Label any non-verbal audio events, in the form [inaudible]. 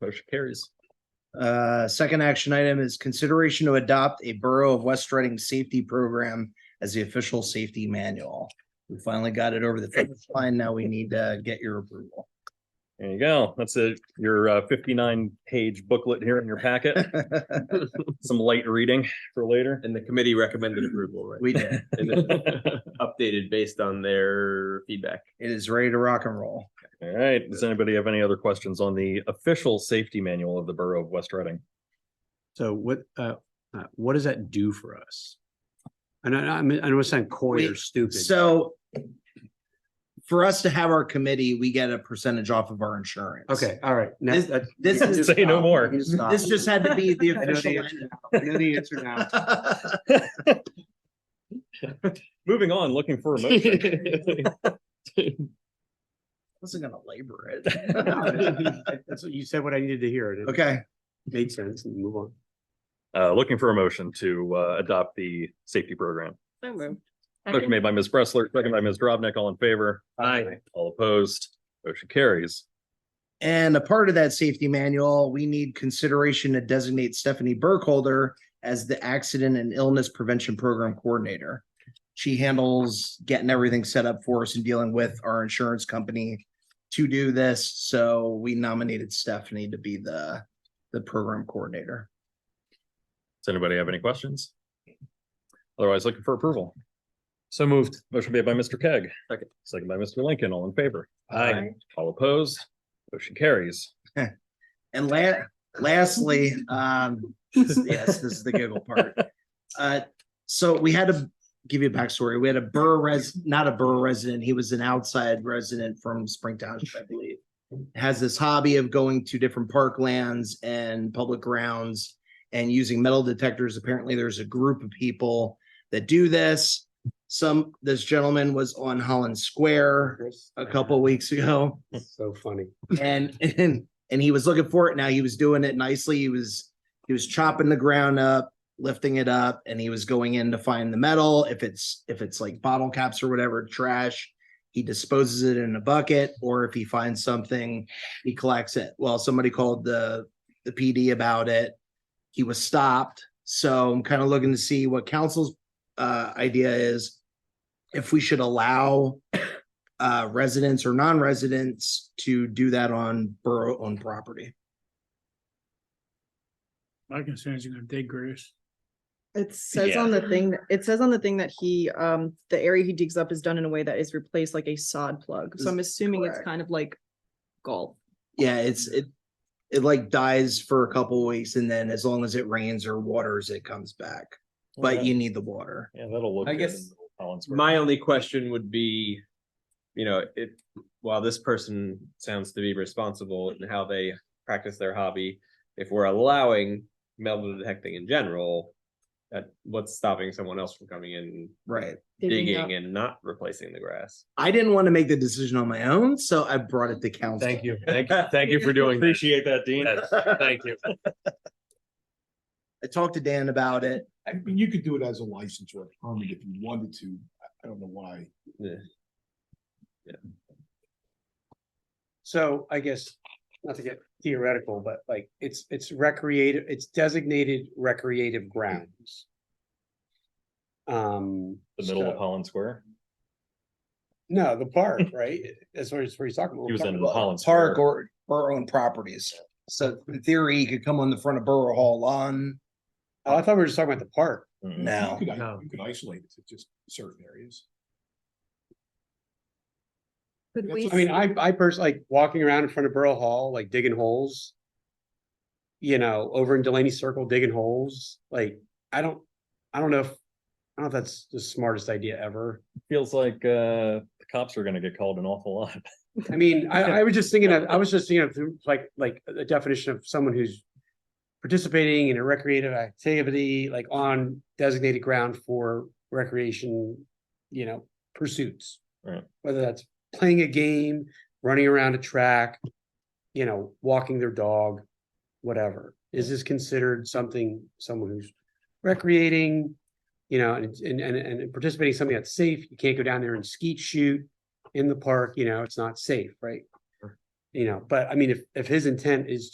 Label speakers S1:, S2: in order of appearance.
S1: Motion carries.
S2: Uh, second action item is consideration to adopt a Borough of West Reading safety program as the official safety manual. We finally got it over the finish line. Now we need to get your approval. [laughs]
S1: There you go. That's a, your uh, fifty-nine page booklet here in your
S3: [laughs]
S1: packet. Some light reading for later.
S4: And the committee recommended approval, right?
S2: We did.
S4: [laughs] And then Updated based on their feedback.
S2: It is ready to rock and roll.
S1: All right. Does anybody have any other questions on the official safety manual of the Borough of West Reading?
S5: So what, uh, uh, what does that do for us? And I, I mean, I don't want to sound coy or
S2: Wait,
S5: stupid.
S2: So for us to have our committee, we get a percentage off of our insurance.
S5: Okay, all right. Now-
S2: This-
S5: that's-
S2: this
S5: you
S2: is-
S5: just
S1: Say no
S5: stop.
S1: more.
S5: You stop.
S2: This just had to be the
S5: [laughs] I know the
S2: official.
S5: answer now. I know the
S2: [laughs]
S5: answer now.
S1: Moving on, looking for a
S3: [laughs]
S1: motion.
S2: Wasn't gonna labor
S5: No,
S2: it. [laughs]
S5: that- That's what you said, what I needed to hear. and It
S2: Okay,
S5: made sense and move on.
S1: Uh, looking for a motion to, uh, adopt the safety program.
S3: So moved.
S1: Motion made by Ms. Bressler, second by Ms. Dropnik, all in favor. Aye. All opposed, motion carries.
S2: and a part of that safety manual, we need consideration to designate Stephanie Burkholder as the Accident and Illness Prevention Program Coordinator. She handles getting everything set up for us and dealing with our insurance company to do this, so we nominated Stephanie to be the, the program coordinator.
S1: Does anybody have any questions? Otherwise, looking for approval. So moved. Motion made by Mr. Keg.
S4: Second.
S1: Second by Mr. Lincoln, all in favor.
S3: Aye.
S1: All opposed, motion carries.
S2: And la- lastly, um, yes, this is the giggle part. Uh, so we had to give you a backstory. We had a borough res, not a borough resident. He was an outside resident from Spring Township, I believe. Has this hobby of going to different parklands and public grounds and using metal detectors. Apparently, there's a group of people that do this. Some, this gentleman was on Holland Square a couple weeks ago
S5: So funny.
S2: and [laughs] and and he was looking for it. Now he was doing it nicely. He was he was chopping the ground up, lifting it up, and he was going in to find the metal. If it's if it's like bottle caps or whatever trash, he disposes it in a bucket, or if he finds something, he collects it. Well, somebody called the the PD about it. He was stopped. So I'm kind of looking to see what council's uh, idea is if we should allow uh, residents or non-residents to do that on borough-owned property.
S6: My concern is you're gonna dig graves.
S3: It says on the thing, that- it says on the thing that he, um, the area he digs up is done in a way that is replaced like a sod plug. So I'm assuming it's
S2: Correct.
S3: kind of like golf.
S2: Yeah, it's, it, it like dies for a couple weeks and then as long as it rains or waters, it comes back. But you need the water.
S1: Yeah, that'll look.
S4: I
S1: good
S4: guess
S1: in Collins Square.
S4: My only question would be, you know, if, while this person sounds to be responsible in how they practice their hobby, if we're allowing metal detecting in general, that what's stopping someone else from coming in,
S2: Right.
S3: up.
S4: digging and not replacing the grass?
S2: I didn't want to make the decision on my own, so I brought it to council.
S5: you.
S7: Thank, thank you for doing. this.
S1: Appreciate that, Dean.
S7: Yes, Thank
S1: [laughs]
S7: you.
S2: I talked to Dan about it.
S8: I mean, you could do it as a license or a permit if you wanted to. I- I don't know why.
S5: So I guess, not to get theoretical, but like, it's, it's recreative, it's designated recreative grounds. Um.
S1: The middle
S5: so-
S1: of Holland Square.
S5: No,
S1: [laughs]
S5: the park, right? That's what he's, what he's talking about.
S1: He was in
S5: We're talking about-
S1: Holland Square.
S2: Park or borough-owned properties. So in theory, you could come on the front of Borough Hall lawn
S5: Oh, I thought we were just talking about the park.
S1: Mm.
S2: now.
S8: You could, i-
S7: No.
S8: you could isolate it to just certain areas.
S3: Could
S8: That's
S3: we,
S8: what
S5: I mean, I, I personally, like, walking around in front of Borough Hall, like digging holes. You know, over in Delaney Circle digging holes, like, I don't, I don't know if, I don't know if that's the smartest idea ever.
S1: Feels like, uh, the cops are gonna get called an awful lot.
S5: I mean, I, I was just thinking of, I was just thinking of like, like a definition of someone who's. Participating in a recreative activity, like on designated ground for recreation, you know, pursuits.
S1: Right.
S5: Whether that's playing a game, running around a track, you know, walking their dog, whatever. Is this considered something, someone who's recreating? You know, and, and, and, and participating in something that's safe. You can't go down there and skeet shoot in the park, you know, it's not safe, right? You know, but I mean, if, if his intent is